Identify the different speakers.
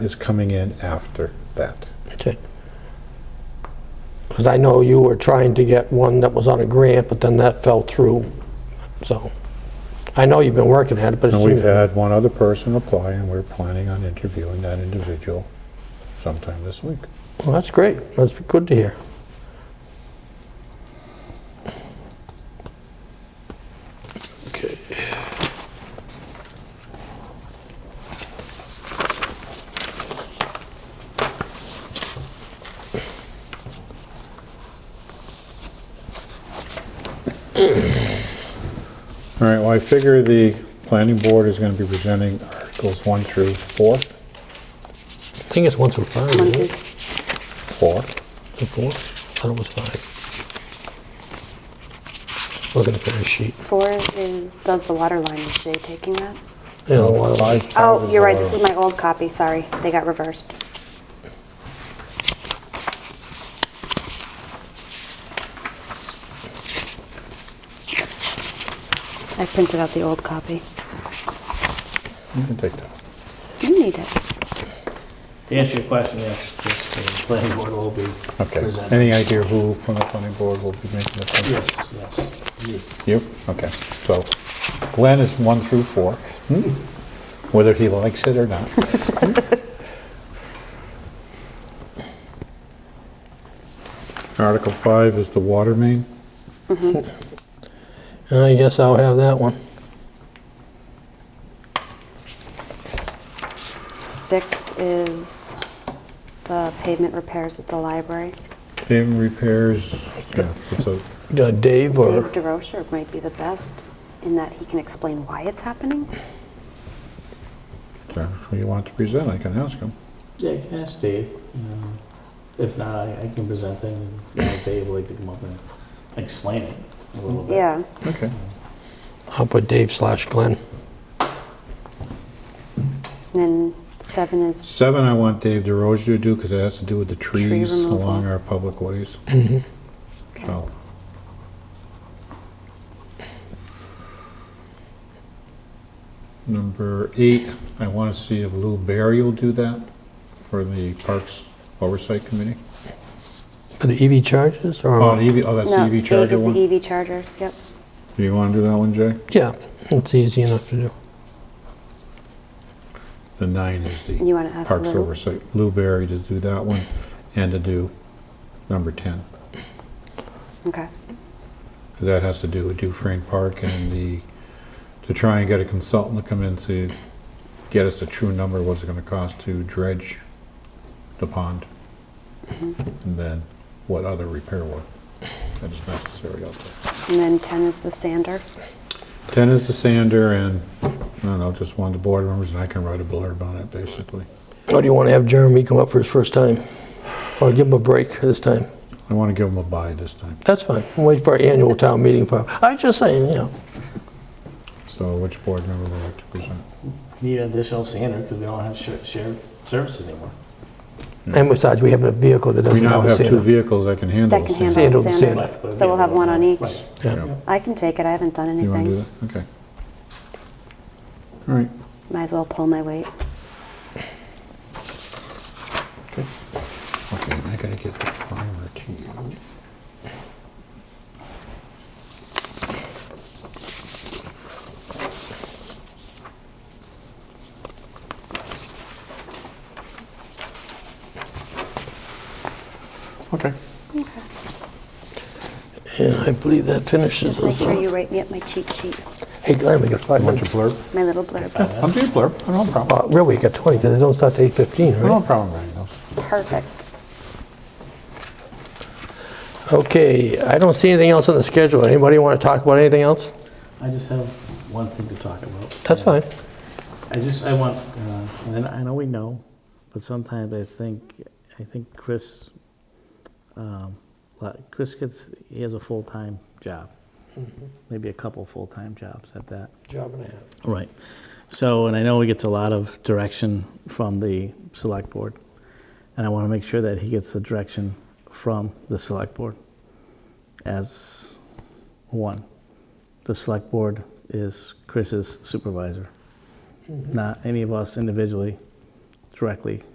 Speaker 1: is coming in after that.
Speaker 2: That's it. Because I know you were trying to get one that was on a grant, but then that fell through, so. I know you've been working at it, but it
Speaker 1: And we've
Speaker 2: seems,
Speaker 1: had one other person apply, and we're planning on interviewing that individual sometime this week.
Speaker 2: well, that's great. That's good to hear. Okay.
Speaker 1: All right, well, I figure the planning board is going to be presenting Articles 1 through 4,
Speaker 2: I think it's one through five, isn't it?
Speaker 1: 4.
Speaker 2: Through four? I thought it was five. Looking for a sheet.
Speaker 3: Four is, does the water line, is Jay taking that?
Speaker 2: Yeah, the water line.
Speaker 1: Five, five
Speaker 3: Oh,
Speaker 1: is
Speaker 3: you're right,
Speaker 1: our-
Speaker 3: this is my old copy, sorry, they got reversed. I printed out the old copy.
Speaker 1: You can take that.
Speaker 3: You need it.
Speaker 4: To answer your question, yes, yes, the planning board will be
Speaker 1: Okay.
Speaker 4: presenting.
Speaker 1: Any idea who from the planning board will be making the presentation?
Speaker 4: Yes, yes.
Speaker 1: You? Okay. So Glenn is one through four, Hmm? whether he likes it or not. Article five is the water main.
Speaker 2: I guess I'll have that one.
Speaker 3: Six is the pavement repairs at the library.
Speaker 1: Paving repairs, yeah, it's a-
Speaker 2: Uh, Dave or?
Speaker 3: Dave DeRocher might be the best in that he can explain why it's happening.
Speaker 1: so who you want to present, I can ask him.
Speaker 4: Yeah, you can ask Dave. um, If not, I I can present it, and if Dave would like to come up and explain it a little bit.
Speaker 3: Yeah.
Speaker 1: Okay.
Speaker 2: I'll put Dave slash Glenn.
Speaker 3: And then seven is
Speaker 1: Seven, I want Dave DeRozier to do because it has to do with the
Speaker 3: Tree
Speaker 1: trees
Speaker 3: removal.
Speaker 1: along our public ways. So Number eight, I want to see if Lou Barry will do that for the Parks Oversight Committee.
Speaker 2: For the EV charges
Speaker 1: Oh,
Speaker 2: or?
Speaker 1: the EV, oh, that's the
Speaker 3: no,
Speaker 1: EV
Speaker 3: eight
Speaker 1: charger
Speaker 3: is
Speaker 1: one?
Speaker 3: the
Speaker 1: Do
Speaker 3: EV chargers. Yep.
Speaker 1: you want to do that one, Jay?
Speaker 2: Yeah, it's easy enough to do.
Speaker 1: The nine is
Speaker 3: And you
Speaker 1: the
Speaker 3: want to ask
Speaker 1: Parks
Speaker 3: Lou?
Speaker 1: Oversight. Lou Barry to do that one and to do number 10.
Speaker 3: Okay.
Speaker 1: That has to do with Dufrane Park and the, to try and get a consultant to come in to get us a true number, of what's it gonna cost to dredge the pond?
Speaker 3: Mm-hmm.
Speaker 1: And then what other repair work that is necessary out there.
Speaker 3: And then ten is the sander.
Speaker 1: Ten is the sander and, I don't know, just one of the board members and I can write a blurb on it, basically.
Speaker 2: Or do you want to have Jeremy come up for his first time? Or give him a break this time?
Speaker 1: I wanna give them a buy this time.
Speaker 2: That's fine. We'll Wait for our annual town meeting. for- I'm just saying, you know.
Speaker 1: So which board member would like to present?
Speaker 4: Need an additional standard because we don't have shared, shared services anymore.
Speaker 2: And besides, we have a vehicle that
Speaker 1: We
Speaker 2: doesn't
Speaker 1: now
Speaker 2: have a
Speaker 1: have two
Speaker 2: sander.
Speaker 1: vehicles that can handle
Speaker 3: That
Speaker 1: the
Speaker 3: can
Speaker 1: sander.
Speaker 3: handle
Speaker 2: Sander, the
Speaker 3: the sanders.
Speaker 4: Right, but
Speaker 3: So we'll have one on each.
Speaker 4: Right.
Speaker 2: Yeah.
Speaker 3: I can take it. I haven't done
Speaker 1: You wanna
Speaker 3: anything.
Speaker 1: do that? Okay. All right.
Speaker 3: Might as well pull my weight.
Speaker 1: Okay, I gotta get the primer to you. Okay.
Speaker 2: And I believe that finishes
Speaker 3: Just make
Speaker 2: us
Speaker 3: sure
Speaker 2: off.
Speaker 3: you write me up my cheat sheet,
Speaker 2: Hey, Glenn, we got five
Speaker 1: Want
Speaker 2: minutes.
Speaker 1: your blurb?
Speaker 3: my little blurb.
Speaker 1: I'm doing blurb, I don't have a problem.
Speaker 2: Uh, Really, we got 20, because it don't start till 8:15,
Speaker 1: I don't
Speaker 2: right?
Speaker 1: have a problem writing those.
Speaker 3: Perfect.
Speaker 1: Oh.
Speaker 2: Okay, I don't see anything else on the schedule. Anybody want to talk about anything else?
Speaker 4: I just have one thing to talk about.
Speaker 2: That's fine.
Speaker 4: I just, I want, uh, and I know we know, but sometimes I think, I think Chris, um, like, Chris gets, he has a full-time job, maybe a couple full-time jobs at that.
Speaker 2: Job and a half.
Speaker 4: Right. So, and I know he gets a lot of direction from the select board, and I want to make sure that he gets the direction from the select board as one. The select board is Chris's supervisor, not any of us individually directly